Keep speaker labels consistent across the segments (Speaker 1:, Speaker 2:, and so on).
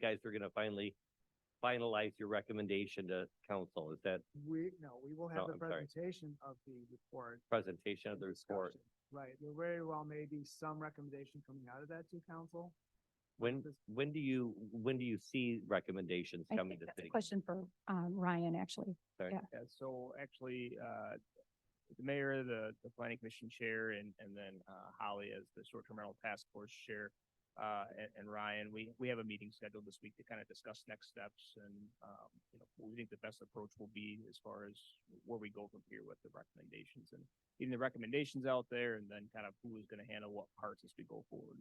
Speaker 1: guys are gonna finally finalize your recommendation to council. Is that
Speaker 2: We, no, we will
Speaker 1: No,
Speaker 2: have the
Speaker 1: Oh, I'm sorry.
Speaker 2: presentation of the report.
Speaker 1: presentation of
Speaker 2: and
Speaker 1: the report?
Speaker 2: discussion. Right, there very well may be some recommendation coming out of that to council.
Speaker 1: When,
Speaker 2: this-
Speaker 1: when do you, when do you see recommendations
Speaker 3: I
Speaker 1: coming
Speaker 3: think
Speaker 1: to
Speaker 3: that's a
Speaker 1: city?
Speaker 3: question for, um, Ryan, actually.
Speaker 4: Yeah, so actually, uh, the mayor, the, the planning commission chair, and, and then, uh, Holly as the short-term rental task force chair, uh, and, and Ryan, we, we have a meeting scheduled this week to kind of discuss next steps and, um, you know, what we think the best approach will be as far as where we go from here with the recommendations and getting the recommendations out there and then kind of who is gonna handle what parts as we go forward.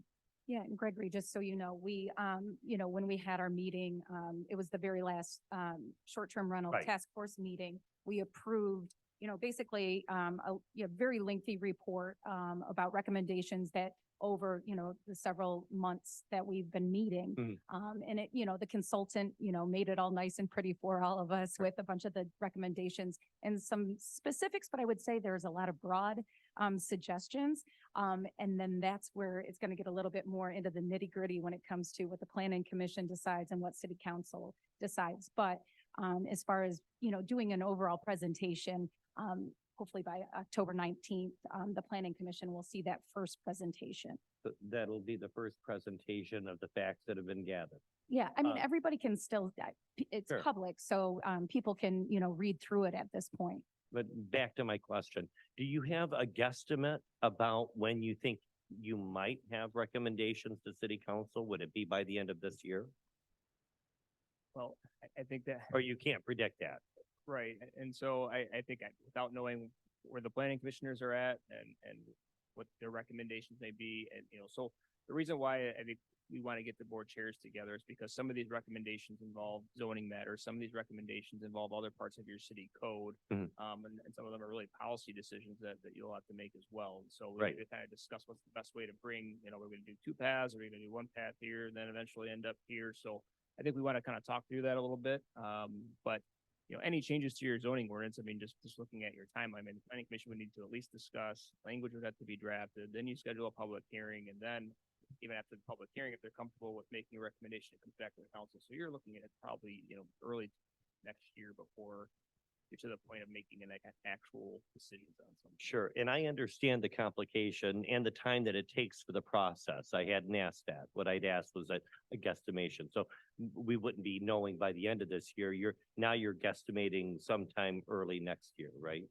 Speaker 3: Yeah, and Gregory, just so you know, we, um, you know, when we had our meeting, um, it was the very last, um, short-term rental
Speaker 1: Right.
Speaker 3: task force meeting. We approved, you know, basically, um, a, you know, very lengthy report, um, about recommendations that over, you know, the several months that we've been meeting.
Speaker 1: Mhm.
Speaker 3: Um, and it, you know, the consultant, you know, made it all nice and pretty for all of us with a bunch of the recommendations and some specifics, but I would say there's a lot of broad, um, suggestions. Um, and then that's where it's gonna get a little bit more into the nitty gritty when it comes to what the planning commission decides and what city council decides. But, um, as far as, you know, doing an overall presentation, um, hopefully by October nineteenth, um, the planning commission will see that first presentation.
Speaker 1: So That'll be the first presentation of the facts that have been gathered.
Speaker 3: Yeah, I mean,
Speaker 1: Um,
Speaker 3: everybody can still, I- p- it's
Speaker 1: Sure.
Speaker 3: public, so, um, people can, you know, read through it at this point.
Speaker 1: But back to my question, do you have a guesstimate about when you think you might have recommendations to city council? Would it be by the end of this year?
Speaker 4: Well, I, I think that.
Speaker 1: Or you can't predict that?
Speaker 4: Right, a- and so I, I think I- without knowing where the planning commissioners are at and, and what their recommendations may be, and, you know, so the reason why I think we want to get the board chairs together is because some of these recommendations involve zoning matters, some of these recommendations involve other parts of your city code.
Speaker 1: Mhm.
Speaker 4: Um, and, and some of them are really policy decisions that, that you'll have to make as well, and so we
Speaker 1: Right.
Speaker 4: need to kind of discuss what's the best way to bring, you know, we're gonna do two paths, or we're gonna do one path here, and then eventually end up here, so I think we want to kind of talk through that a little bit, um, but you know, any changes to your zoning ordinance, I mean, just, just looking at your timeline, I mean, the planning commission would need to at least discuss, language would have to be drafted, then you schedule a public hearing, and then even after the public hearing, if they're comfortable with making a recommendation, it comes back to the council, so you're looking at probably, you know, early next year before you're to the point of making an ac- actual decisions on something.
Speaker 1: Sure, and I understand the complication and the time that it takes for the process. I hadn't asked that. What I'd asked was a, a guesstimation. So m- we wouldn't be knowing by the end of this year. You're, now you're guesstimating sometime early next year, right?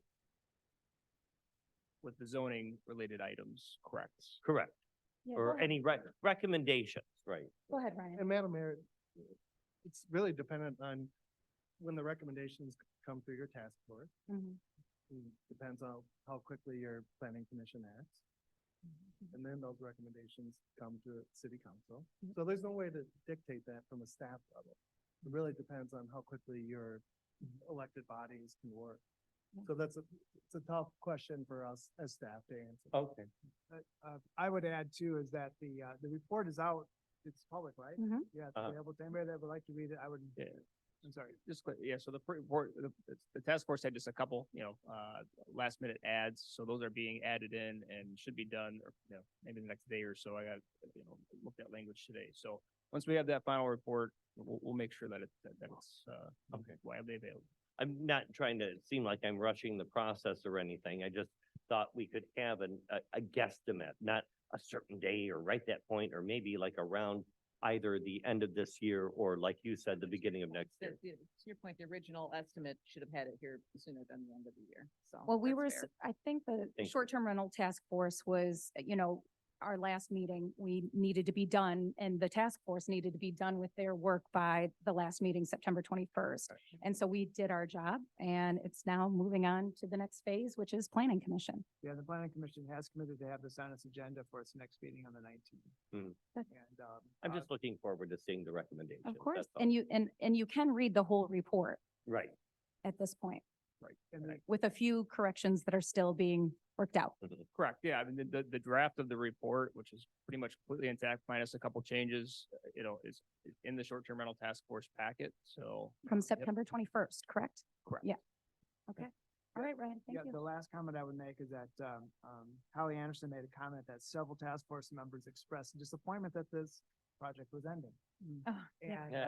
Speaker 4: With the zoning related items, correct?
Speaker 1: Correct.
Speaker 3: Yeah, go
Speaker 1: Or
Speaker 3: ahead.
Speaker 1: any rec- recommendations, right?
Speaker 3: Go ahead, Ryan.
Speaker 5: And Madam Mayor, it's really dependent on when the recommendations come through your task force.
Speaker 3: Mhm.
Speaker 5: and Depends on how quickly your planning commission acts. And then those recommendations come to city council.
Speaker 1: Mm-hmm.
Speaker 5: So there's no way to dictate that from a staff level. It really depends on how quickly your
Speaker 1: Mm-hmm.
Speaker 5: elected bodies can work. So that's a, it's a tough question for us as staff to answer.
Speaker 1: Okay.
Speaker 2: But, uh, I would add too is that the, uh, the report is out, it's public, right?
Speaker 3: Mhm.
Speaker 2: Yeah, it's
Speaker 1: Uh-huh.
Speaker 2: available to anybody that would like to read it, I would,
Speaker 4: Yeah.
Speaker 2: I'm sorry.
Speaker 4: just quick, yeah, so the pre- report, the, it's- the task force had just a couple, you know, uh, last minute ads, so those are being added in and should be done, or, you know, maybe the next day or so, I got, you know, looked at language today, so once we have that final report, we'll, we'll make sure that it, that that's, uh,
Speaker 1: Okay.
Speaker 4: widely available.
Speaker 1: I'm not trying to seem like I'm rushing the process or anything. I just thought we could have an, a, a guesstimate, not a certain day or right that point, or maybe like around either the end of this year or like you said, the beginning of next
Speaker 6: The-
Speaker 1: year.
Speaker 6: the- To your point, the original estimate should have had it here sooner than the end of the year, so.
Speaker 3: Well, we
Speaker 6: that's
Speaker 3: were,
Speaker 6: fair.
Speaker 3: s- I think the
Speaker 1: you.
Speaker 3: short-term rental task force was, uh, you know, our last meeting, we needed to be done and the task force needed to be done with their work by the last meeting, September twenty-first. And so we did our job and it's now moving on to the next phase, which is planning commission.
Speaker 2: Yeah, the planning commission has committed to have this on its agenda for its next meeting on the nineteenth.
Speaker 1: Mhm.
Speaker 3: Good.
Speaker 2: And, um.
Speaker 1: I'm
Speaker 2: uh,
Speaker 1: just looking forward to seeing the recommendations.
Speaker 3: Of course,
Speaker 1: that's all.
Speaker 3: and you, and, and you can read the whole report
Speaker 1: Right.
Speaker 3: at this point
Speaker 2: And the-
Speaker 3: with a few corrections that are still being worked out.
Speaker 4: Correct, yeah, I mean, the- the, the draft of the report, which is pretty much completely intact minus a couple changes, uh, you know, is is in the short-term rental task force packet, so.
Speaker 3: From
Speaker 4: Yep.
Speaker 3: September twenty-first, correct?
Speaker 4: Correct.
Speaker 3: Yeah. Okay. All right, Ryan, thank
Speaker 2: Yeah,
Speaker 3: you.
Speaker 2: the last comment I would make is that, um, um, Holly Anderson made a comment that several task force members expressed disappointment that this project was ending.
Speaker 7: Oh, yeah.
Speaker 2: And
Speaker 3: Mm. Yeah.